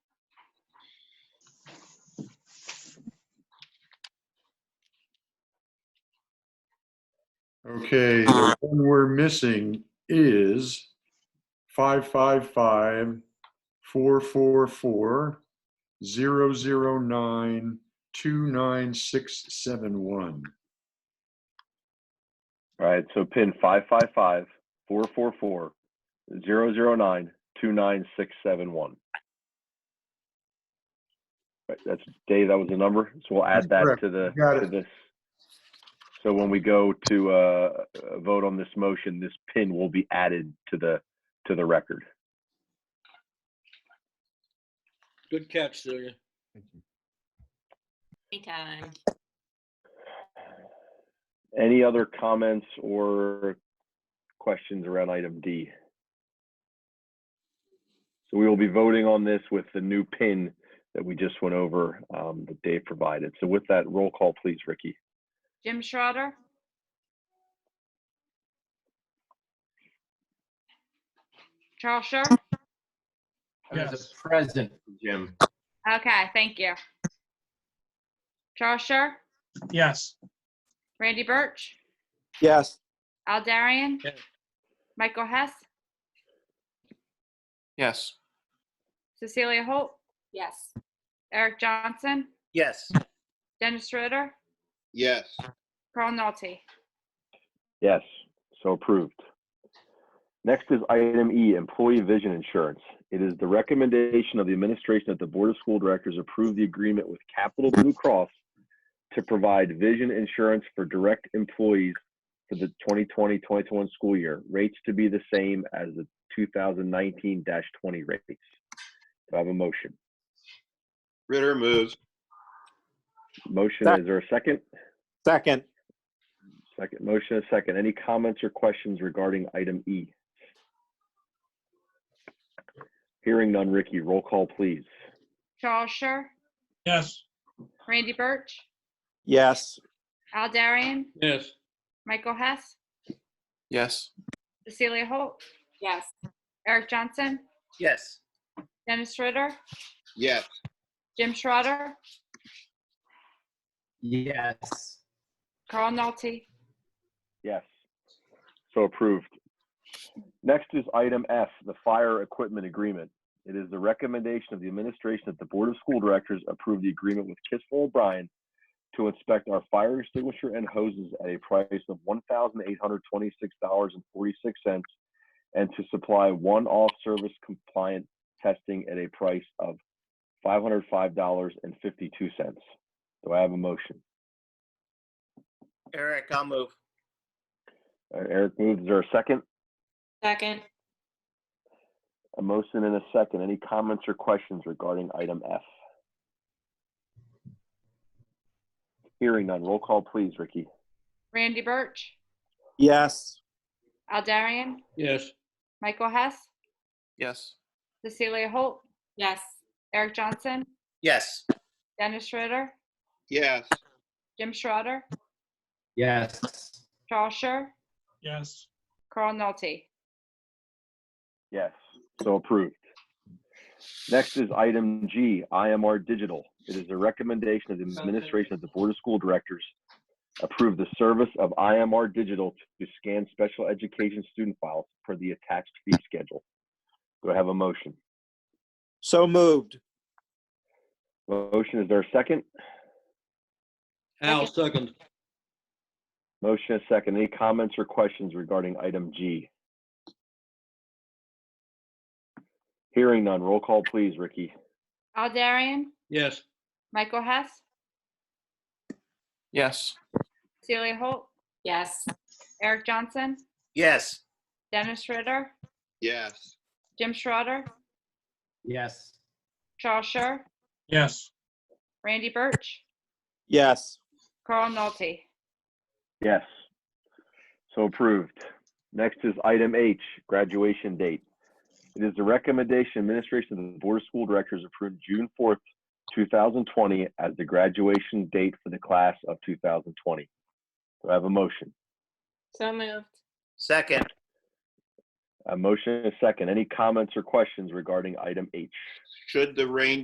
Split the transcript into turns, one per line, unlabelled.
Okay, the one we're missing is five five five four four four zero zero nine two nine six seven one.
All right, so pin five five five four four four zero zero nine two nine six seven one. Right, that's Dave, that was the number, so we'll
That's
add that
correct.
to the,
You got
to
it.
this. So when we go to, uh, uh, vote on this motion, this pin will be added to the, to the record.
Good catch, Celia.
Anytime.
Any other comments or questions around item D? So we will be voting on this with the new pin that we just went over um, that Dave provided. So with that, roll call, please, Ricky.
Jim Schrader, Charles Scher.
There's a present, Jim.
Okay, thank you. Charles Scher,
Yes.
Randy Birch,
yes,
Al Darian,
Yes.
Michael Hess,
Yes.
Cecilia Holt,
Yes.
Eric Johnson,
Yes.
Dennis Schrader,
yes.
Carl Nolte.
Yes, so approved. Next is item E, employee vision insurance. It is the recommendation of the administration that the Board of School Directors approve the agreement with Capital Blue Cross to provide vision insurance for direct employees for the 2020-21 school year, rates to be the same as the 2019-20 rates. Do I have a motion?
Ritter moves.
Motion, is there a second?
second,
Second, motion is second. Any comments or questions regarding item E? Hearing none, Ricky, roll call, please.
Charles Scher,
Yes.
Randy Birch,
yes,
Al Darian,
Yes.
Michael Hess,
Yes.
Cecilia Holt,
Yes.
Eric Johnson,
Yes.
Dennis Ritter,
Yes.
Jim Schrader,
Yes.
Carl Nolte.
Yes. So approved. Next is item F, the fire equipment agreement. It is the recommendation of the administration that the Board of School Directors approve the agreement with Kissel O'Brien to inspect our fire extinguisher and hoses at a price of $1,826.46 and to supply one off-service compliant testing at a price of $505.52. Do I have a motion?
Eric, I'll move.
Uh, Eric moves. Is there a second?
Second.
A motion and a second. Any comments or questions regarding item F? Hearing none. Roll call, please, Ricky.
Randy Birch,
yes.
Al Darian,
Yes.
Michael Hess,
Yes.
Cecilia Holt,
Yes.
Eric Johnson,
Yes.
Dennis Schrader,
Yes.
Jim Schrader,
Yes.
Charles Scher,
Yes.
Carl Nolte.
Yes, so approved. Next is item G, IMR Digital. It is a recommendation of the administration of the Board of School Directors approve the service of IMR Digital to scan special education student files for the attached fee schedule. Do I have a motion?
So moved,
Motion, is there a second?
Al, second.
Motion is second. Any comments or questions regarding item G? Hearing none. Roll call, please, Ricky.
Al Darian,
Yes.
Michael Hess,
Yes.
Cecilia Holt,
Yes.
Eric Johnson,
Yes.
Dennis Ritter,
Yes.
Jim Schrader,
Yes.
Charles Scher,
Yes.
Randy Birch,
yes.
Carl Nolte.
Yes. So approved. Next is item H, graduation date. It is the recommendation administration of the Board of School Directors approved June 4th, 2020 as the graduation date for the class of 2020. Do I have a motion?
So moved.
Second.
A motion and a second. Any comments or questions regarding item H?
Should the rain